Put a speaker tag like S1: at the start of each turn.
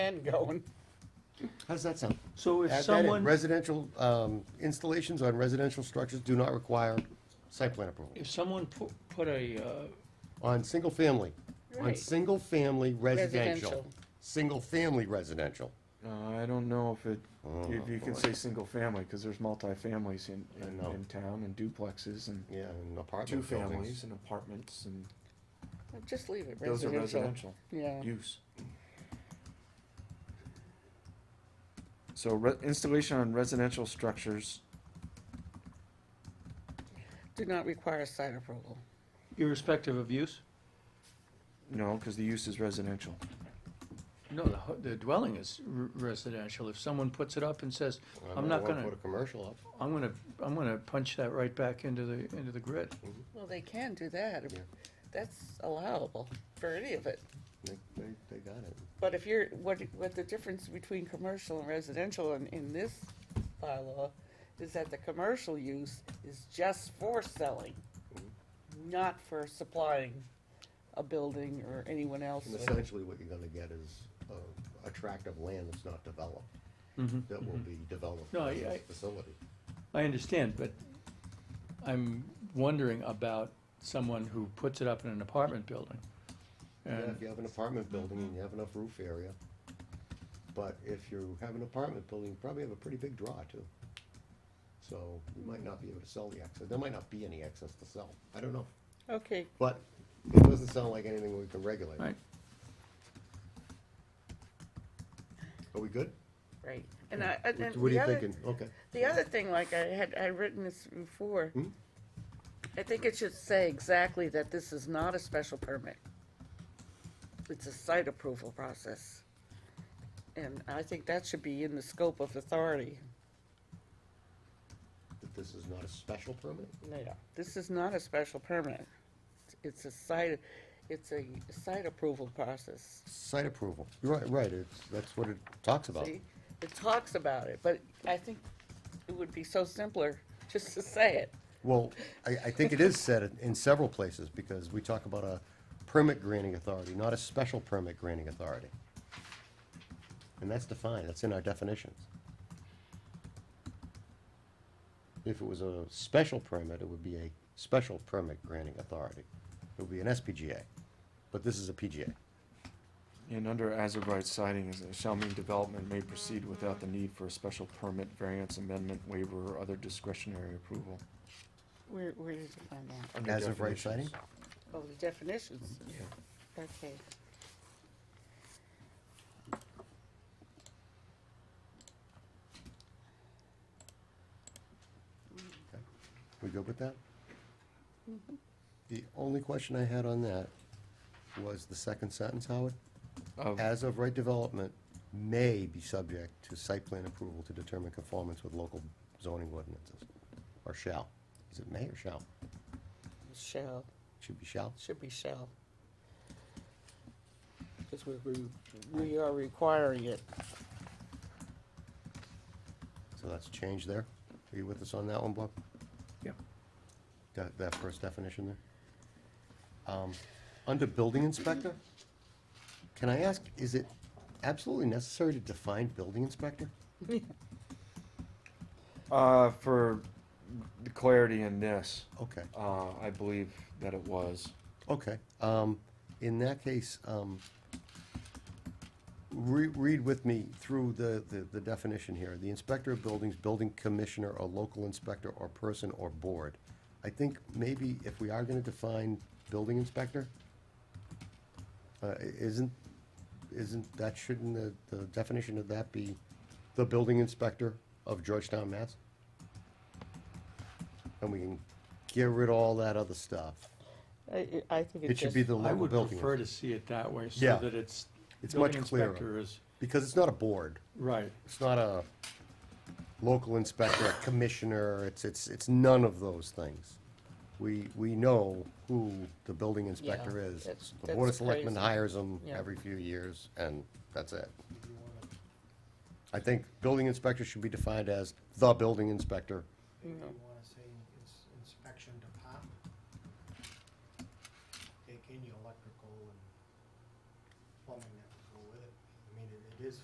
S1: end going.
S2: How's that sound?
S3: So if
S2: Add that in.
S3: someone,
S2: Residential, um, installations on residential structures do not require site plan approval.
S3: if someone put, put a, uh,
S2: On single family, on
S1: Right.
S2: single family residential,
S1: Residential.
S2: single family residential.
S4: Uh, I don't know if it,
S2: Oh,
S4: if you can
S2: boy.
S4: say single family, cause there's multifamilies in,
S2: I
S4: in,
S2: know.
S4: in town and duplexes and
S2: Yeah, and
S4: two
S2: apartment
S4: families
S2: buildings.
S4: and apartments and
S1: Just leave it
S4: those are
S1: residential.
S4: residential
S1: Yeah.
S4: use. So re- installation on residential structures,
S1: Do not require site approval.
S3: irrespective of use?
S4: no, cause the use is residential.
S3: No, the, ho- the dwelling is r- residential. If someone puts it up and says,
S2: I
S3: I'm
S2: don't
S3: not
S2: wanna
S3: gonna,
S2: Put a commercial up.
S3: I'm gonna, I'm gonna punch that right back into the, into the grid.
S1: Well, they can do that.
S2: Yeah.
S1: That's allowable for any of it.
S2: They, they, they got it.
S1: But if you're, what, what the difference between commercial and residential in, in this bylaw is that the commercial use is just for selling,
S2: Mm-hmm.
S1: not for supplying a building or anyone else.
S2: And
S1: with-
S2: essentially what you're gonna get is a, a tract of land that's not developed,
S3: Mhm.
S2: that will be developed
S3: No,
S2: as
S3: I-
S2: a
S3: I-
S2: facility.
S3: I understand, but I'm wondering about someone who puts it up in an apartment building.
S2: Yeah,
S3: And,
S2: if you have an apartment building and you have enough roof area. But if you have an apartment building, you probably have a pretty big draw too. So you might not be able to sell the excess, there might not be any excess to sell, I don't know.
S1: Okay,
S2: But it doesn't sound like anything we can regulate.
S3: right,
S2: Are we good?
S1: right. And I, and then
S2: What are
S1: the
S2: you
S1: other-
S2: thinking? Okay.
S1: The other thing, like I had, I written this before,
S2: Hmm?
S1: I think it should say exactly that this is not a special permit. It's a site approval process. And I think that should be in the scope of authority.
S2: That this is not a special permit?
S1: Yeah. This is not a special permit. It's a site, it's a site approval process.
S2: Site approval. Right, right, it's, that's what it talks about.
S1: See, it talks about it, but I think it would be so simpler just to say it.
S2: Well, I, I think it is said in- in several places, because we talk about a permit granting authority, not a special permit granting authority. And that's defined, that's in our definitions. If it was a special permit, it would be a special permit granting authority. It would be an SPGA, but this is a PGA.
S4: And under as of right siding, is- shall mean development may proceed without the need for a special permit, variance, amendment, waiver, or other discretionary approval.
S1: Where, where did you find that?
S4: Under
S2: As of right
S4: definitions.
S2: siding?
S1: Oh, the definitions? Okay.
S2: We good with that? The only question I had on that was the second sentence, Howard.
S4: Of-
S2: As of right development, may be subject to site plan approval to determine conformance with local zoning ordinances, or shall. Is it may or shall?
S1: Shall,
S2: Should be shall.
S1: should be shall. Because we, we, we are requiring it.
S2: So that's a change there. Are you with us on that one, Bob?
S3: yeah.
S2: That, that first definition there? Um, Under building inspector, can I ask, is it absolutely necessary to define building inspector?
S4: Uh, for the clarity in this,
S2: Okay.
S4: uh, I believe that it was.
S2: Okay, um, in that case, um, re- read with me through the, the, the definition here. The inspector of buildings, building commissioner, or local inspector, or person, or board. I think maybe if we are gonna define building inspector, uh, i- isn't, isn't, that, shouldn't the, the definition of that be the building inspector of Georgetown, Mass? And we can get rid of all that other stuff.
S1: I, I think
S2: It
S1: it's
S2: should be
S1: just,
S2: the
S3: I
S2: local
S3: would
S2: building.
S3: prefer to see it that way,
S2: Yeah.
S3: so that it's,
S2: It's
S3: building
S2: much clearer.
S3: inspector is,
S2: Because it's not a board.
S3: right.
S2: It's not a local inspector, a commissioner. It's, it's, it's none of those things. We, we know who the building inspector
S1: Yeah,
S2: is.
S1: that's-
S2: The Board of
S1: that's
S2: Selectmen
S1: crazy.
S2: hires them
S1: Yeah.
S2: every few years, and that's it. I think building inspector should be defined as the building inspector
S5: Maybe you wanna say